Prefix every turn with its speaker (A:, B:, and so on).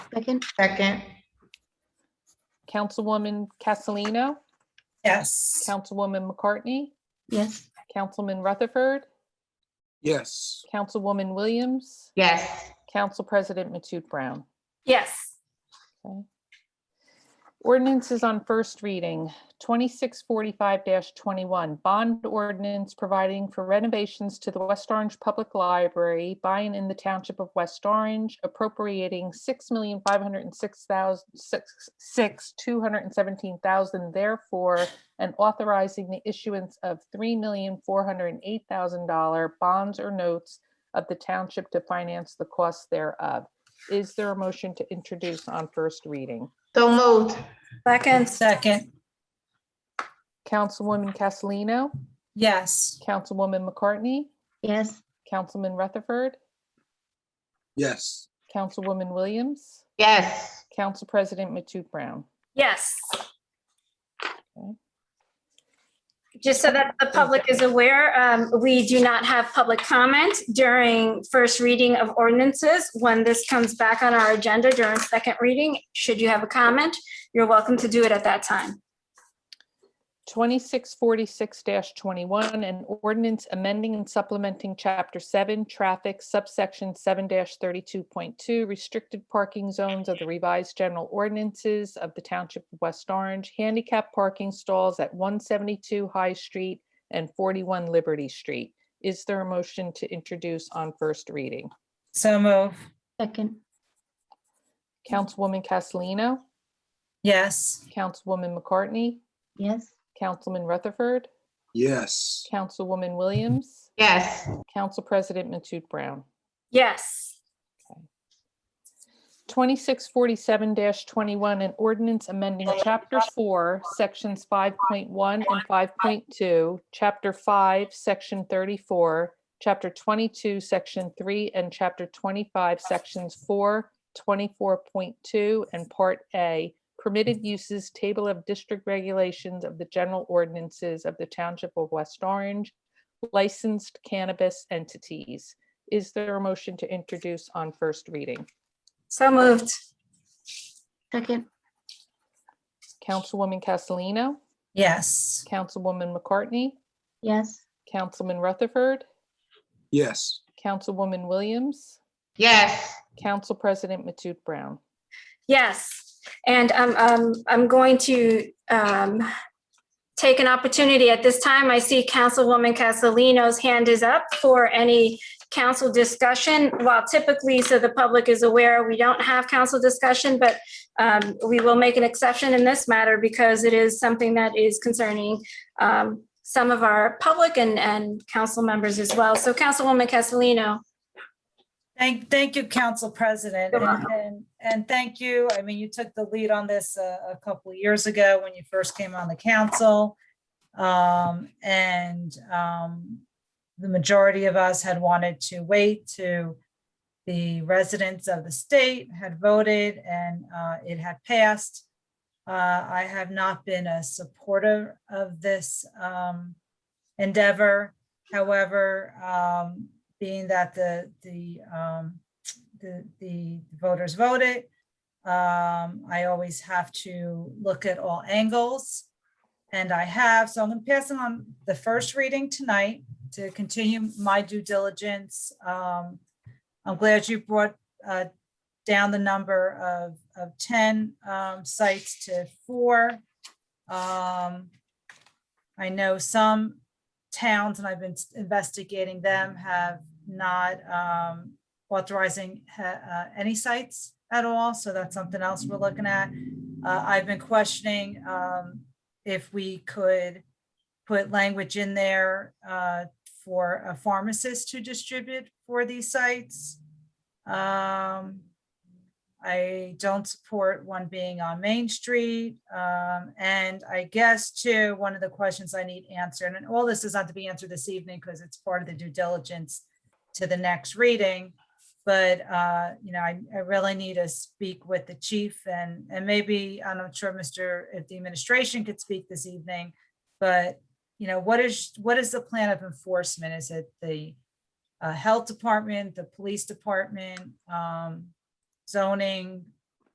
A: Second?
B: Second,
C: Councilwoman Castellino,
D: Yes.
C: Councilwoman McCartney,
A: Yes.
C: Councilman Rutherford,
E: yes,
C: Councilwoman Williams,
B: yes,
C: Council President Matute Brown.
F: yes,
C: Okay. Ordinance is on first reading, 2645-21, bond ordinance providing for renovations to the West Orange Public Library by and in the Township of West Orange appropriating $6,506,217,000 therefore and authorizing the issuance of $3,408,000 bonds or notes of the township to finance the costs thereof. Is there a motion to introduce on first reading?
B: so moved,
F: second,
D: Second,
C: Councilwoman Castellino,
D: yes.
C: Councilwoman McCartney,
A: Yes.
C: Councilman Rutherford,
E: yes,
C: Councilwoman Williams,
B: yes,
C: Council President Matute Brown.
F: yes.
C: Okay.
F: Just so that the public is aware, um, we do not have public comment during first reading of ordinances. When this comes back on our agenda during second reading, should you have a comment, you're welcome to do it at that time.
C: 2646-21, an ordinance amending and supplementing Chapter 7, Traffic, subsection 7-32.2, restricted parking zones of the revised general ordinances of the Township of West Orange, handicap parking stalls at 172 High Street and 41 Liberty Street. Is there a motion to introduce on first reading?
D: So move,
A: Second?
C: Councilwoman Castellino,
D: yes.
C: Councilwoman McCartney,
A: Yes.
C: Councilman Rutherford,
E: yes,
C: Councilwoman Williams,
B: yes,
C: Council President Matute Brown.
F: Yes,
C: 2647-21, an ordinance amending Chapter 4, Sections 5.1 and 5.2, Chapter 5, Section 34, Chapter 22, Section 3, and Chapter 25, Sections 4, 24.2, and Part A, permitted uses table of district regulations of the general ordinances of the Township of West Orange, licensed cannabis entities. Is there a motion to introduce on first reading?
F: so moved.
A: Second?
C: Councilwoman Castellino,
D: Yes.
C: Councilwoman McCartney,
A: Yes.
C: Councilman Rutherford,
E: yes,
C: Councilwoman Williams,
B: yes,
C: Council President Matute Brown.
F: Yes, and um, um, I'm going to um, take an opportunity at this time. I see Councilwoman Castellino's hand is up for any council discussion. While typically, so the public is aware, we don't have council discussion, but um, we will make an exception in this matter because it is something that is concerning um, some of our public and, and council members as well. So Councilwoman Castellino.
D: Thank, thank you, Council President.
F: You're
D: And- And, and thank you. I mean, you took the lead on this a, a couple of years ago when you first came on the council. Um, and, um, the majority of us had wanted to wait to the residents of the state had voted and, uh, it had passed. Uh, I have not been a supporter of this, um, endeavor. However, um, being that the, the, um, the, the voters voted. Um, I always have to look at all angles. And I have, so I'm gonna pass it on the first reading tonight to continue my due diligence. Um, I'm glad you brought, uh, down the number of, of ten, um, sites to four. Um, I know some towns, and I've been investigating them, have not um, authorizing ha- uh, any sites at all, so that's something else we're looking at. Uh, I've been questioning um, if we could put language in there uh, for a pharmacist to distribute for these sites. Um, I don't support one being on Main Street. Um, and I guess too, one of the questions I need answered, and all this is not to be answered this evening because it's part of the due diligence to the next reading. But, uh, you know, I, I really need to speak with the chief and, and maybe, I'm not sure, Mr., if the administration could speak this evening. But, you know, what is, what is the plan of enforcement? Is it the, uh, health department, the police department? Um, zoning,